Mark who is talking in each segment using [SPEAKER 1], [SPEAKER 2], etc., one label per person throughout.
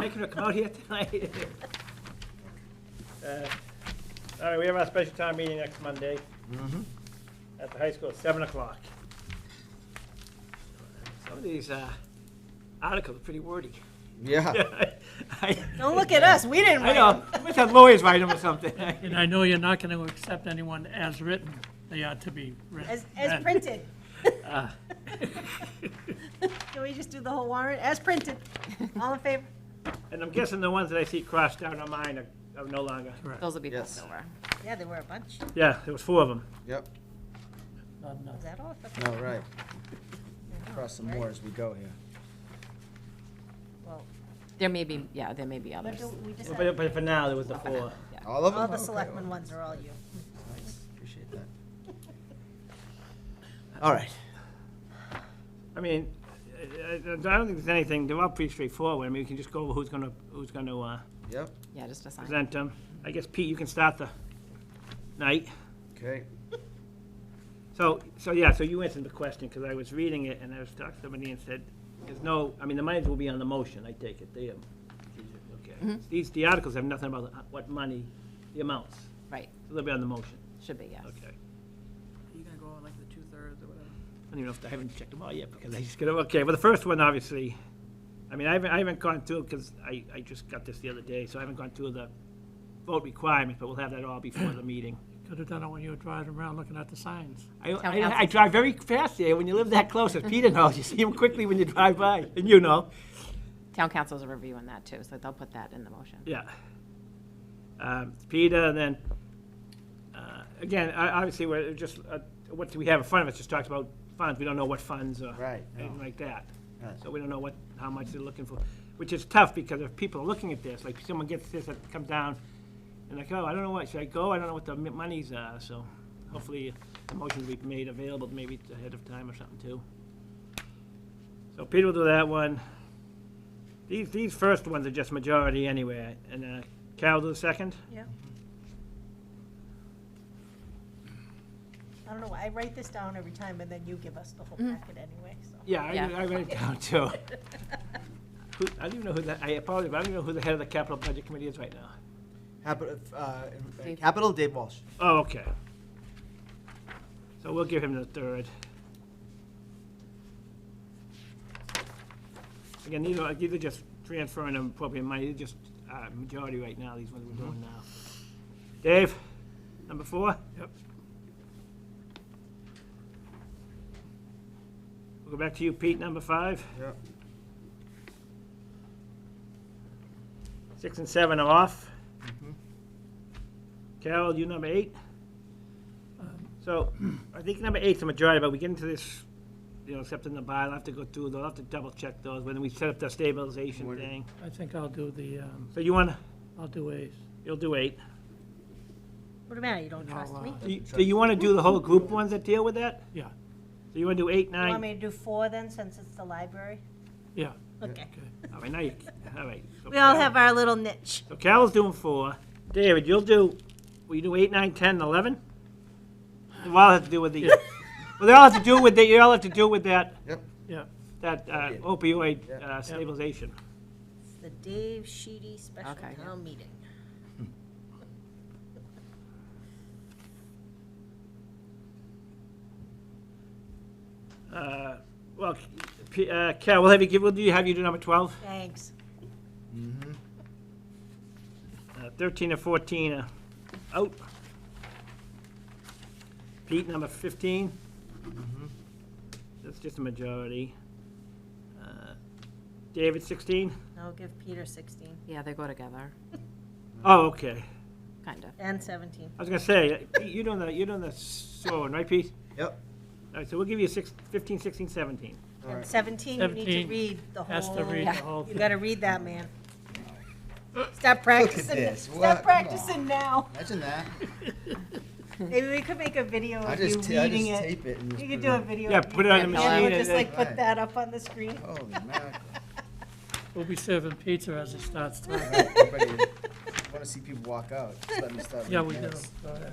[SPEAKER 1] making her come out here tonight. Uh, All right, we have our special town meeting next Monday Mm-hmm. at the high school at seven o'clock. Some of these uh, articles are pretty wordy.
[SPEAKER 2] Yeah.
[SPEAKER 1] I-
[SPEAKER 3] Don't look at us, we didn't
[SPEAKER 1] I
[SPEAKER 3] write
[SPEAKER 1] know,
[SPEAKER 3] them.
[SPEAKER 1] I wish had lawyers write them or something.
[SPEAKER 4] And I know you're not going to accept anyone as written. They are to be written.
[SPEAKER 3] As, as printed.
[SPEAKER 1] Ah.
[SPEAKER 3] Can we just do the whole warrant as printed? All in favor?
[SPEAKER 1] And I'm guessing the ones that I see crossed out on mine are- are no longer.
[SPEAKER 5] Those will be
[SPEAKER 2] Yes.
[SPEAKER 5] passed over.
[SPEAKER 3] Yeah, there were a bunch.
[SPEAKER 1] Yeah, there was four of them.
[SPEAKER 2] Yep.
[SPEAKER 4] Not enough.
[SPEAKER 3] Is that all?
[SPEAKER 2] No, right. Cross some more as we go here.
[SPEAKER 3] Well,
[SPEAKER 5] There may be, yeah, there may be
[SPEAKER 3] what
[SPEAKER 5] others.
[SPEAKER 3] do we decide?
[SPEAKER 1] But but for now, there was the four.
[SPEAKER 2] All of them?
[SPEAKER 3] All the
[SPEAKER 2] Okay,
[SPEAKER 3] selectmen ones are all you.
[SPEAKER 2] Nice. Appreciate that. All right.
[SPEAKER 1] I mean, I I- I don't think there's anything, they're all pretty straightforward. I mean, we can just go over who's gonna, who's gonna uh,
[SPEAKER 2] Yep.
[SPEAKER 5] Yeah, just assign.
[SPEAKER 1] present them. I guess Pete, you can start the night.
[SPEAKER 2] Okay.
[SPEAKER 1] So, so yeah, so you answered the question, because I was reading it, and I was talking to somebody and said, there's no, I mean, the monies will be on the motion, I take it, they, um, okay. These, the articles have nothing about the- what money, the amounts,
[SPEAKER 5] Right,
[SPEAKER 1] so they'll be on the motion,
[SPEAKER 5] should be, yes.
[SPEAKER 1] okay.
[SPEAKER 6] Are you gonna go on like the two-thirds or whatever?
[SPEAKER 1] I don't even know if, I haven't checked them all yet, because I just got, okay, well, the first one, obviously, I mean, I haven't, I haven't gone through, because I, I just got this the other day, so I haven't gone through the vote requirements, but we'll have that all before the meeting.
[SPEAKER 4] Could have done it when you were driving around looking at the signs.
[SPEAKER 1] I, I,
[SPEAKER 5] council.
[SPEAKER 1] I drive very fast there, when you live that close, as Peter knows, you see him quickly when you drive by, and you know,
[SPEAKER 5] Town councils are reviewing that too, so they'll put that in the motion.
[SPEAKER 1] yeah. Um, Peter, and then, uh, again, I, obviously, we're just, uh, what do we have in front of us, just talks about funds, we don't know what funds or
[SPEAKER 2] Right, no.
[SPEAKER 1] anything like that.
[SPEAKER 2] Right.
[SPEAKER 1] So we don't know what, how much they're looking for, which is tough, because if people are looking at this, like, someone gets this, it comes down, and like, oh, I don't know what, should I go, I don't know what the mi- monies are, so hopefully, the motion will be made available maybe ahead of time or something too. So Peter will do that one. These, these first ones are just majority anyway, and uh, Carol do the second?
[SPEAKER 3] Yeah. I don't know, why I write this down every time and then you give us the whole packet anyway, so.
[SPEAKER 1] Yeah, I,
[SPEAKER 5] Yeah.
[SPEAKER 1] I wrote it down too. Who, I don't even know who the, I apologize, but I don't even know who the head of the capital budget committee is right now.
[SPEAKER 2] Capital, uh,
[SPEAKER 5] Dave.
[SPEAKER 2] Capital, Dave Walsh.
[SPEAKER 1] Oh, okay. So we'll give him the third. Again, these are, these are just transferring them appropriate money, they're just, uh, majority right now, these ones we're doing now. Dave, number four? Yep. We'll go back to you, Pete, number five.
[SPEAKER 2] Yep.
[SPEAKER 1] Six and seven are off. Carol, you number eight? So, I think number eight's the majority, but we get into this, you know, accepting the bylaw, I'll have to go through, those. I'll have to double check those, when we set up the stabilization
[SPEAKER 2] What-
[SPEAKER 1] thing.
[SPEAKER 4] I think I'll do the, um,
[SPEAKER 1] So you wanna,
[SPEAKER 4] I'll do A's.
[SPEAKER 1] you'll do eight.
[SPEAKER 3] What do you matter, you don't
[SPEAKER 4] No,
[SPEAKER 3] trust
[SPEAKER 4] uh,
[SPEAKER 3] me?
[SPEAKER 4] You
[SPEAKER 1] Do you- do you wanna do the whole group ones that deal with that?
[SPEAKER 4] Yeah,
[SPEAKER 1] So you wanna do eight,
[SPEAKER 3] You want
[SPEAKER 1] nine?
[SPEAKER 3] me to do four then, since it's the library?
[SPEAKER 4] yeah.
[SPEAKER 3] Okay.
[SPEAKER 1] All right, now you, all right. So
[SPEAKER 3] We all
[SPEAKER 1] Carol-
[SPEAKER 3] have our little niche.
[SPEAKER 1] So Carol's doing four. David, you'll do, will you do eight, nine, ten, and eleven? They all have to do with the, well, they all have to do with, the- they all have to do with that,
[SPEAKER 4] Yeah,
[SPEAKER 1] that uh,
[SPEAKER 2] Opiate.
[SPEAKER 1] opioid
[SPEAKER 2] Yeah.
[SPEAKER 1] uh, stabilization.
[SPEAKER 3] It's the Dave Sheedy Special
[SPEAKER 5] Okay.
[SPEAKER 3] Town Meeting.
[SPEAKER 1] Uh, Well, P- uh, Carol, we'll have you give, we'll do, have you do number twelve.
[SPEAKER 3] Thanks.
[SPEAKER 2] Mm-hmm.
[SPEAKER 1] Uh, Thirteen and fourteen uh, are out. Pete, number fifteen.
[SPEAKER 2] Mm-hmm.
[SPEAKER 1] That's just a majority. Uh, David, sixteen?
[SPEAKER 3] I'll give Peter 16
[SPEAKER 5] Yeah, they go together,
[SPEAKER 1] Oh, okay.
[SPEAKER 5] kind of.
[SPEAKER 3] and 17.
[SPEAKER 1] I was gonna say, uh, Pete, you're doing the, you're doing the sewer one, right, Pete?
[SPEAKER 2] Yep.
[SPEAKER 1] All right, so we'll give you six, fifteen, sixteen, seventeen.
[SPEAKER 2] All
[SPEAKER 3] And
[SPEAKER 2] right.
[SPEAKER 3] 17, you need to
[SPEAKER 4] 17
[SPEAKER 3] read the
[SPEAKER 4] Has to
[SPEAKER 3] whole,
[SPEAKER 4] read the whole
[SPEAKER 3] you
[SPEAKER 4] thing.
[SPEAKER 3] gotta read that, man. Stop practicing,
[SPEAKER 2] this. What? Come
[SPEAKER 3] stop
[SPEAKER 2] on.
[SPEAKER 3] practicing now.
[SPEAKER 2] Imagine that.
[SPEAKER 3] Maybe we could make a video
[SPEAKER 2] I
[SPEAKER 3] of you
[SPEAKER 2] just, ta- I
[SPEAKER 3] reading
[SPEAKER 2] just
[SPEAKER 3] it.
[SPEAKER 2] tape it and just.
[SPEAKER 3] You could
[SPEAKER 2] put
[SPEAKER 3] do a
[SPEAKER 2] it
[SPEAKER 3] video.
[SPEAKER 1] Yeah,
[SPEAKER 3] of you
[SPEAKER 1] put it on the
[SPEAKER 3] reading And
[SPEAKER 1] machine
[SPEAKER 3] we'll just
[SPEAKER 1] and-
[SPEAKER 3] like put
[SPEAKER 2] Right.
[SPEAKER 3] that up on the screen.
[SPEAKER 2] on. Holy mackerel.
[SPEAKER 4] We'll be serving pizza as it starts. to-
[SPEAKER 2] All right, everybody, I wanna see people walk out. Just let me start.
[SPEAKER 4] Yeah,
[SPEAKER 2] with
[SPEAKER 4] we do.
[SPEAKER 2] this.
[SPEAKER 4] Go ahead.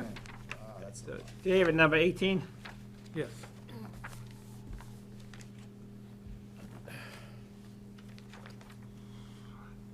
[SPEAKER 2] Wow, that's a
[SPEAKER 1] So David, number eighteen?
[SPEAKER 4] Yes.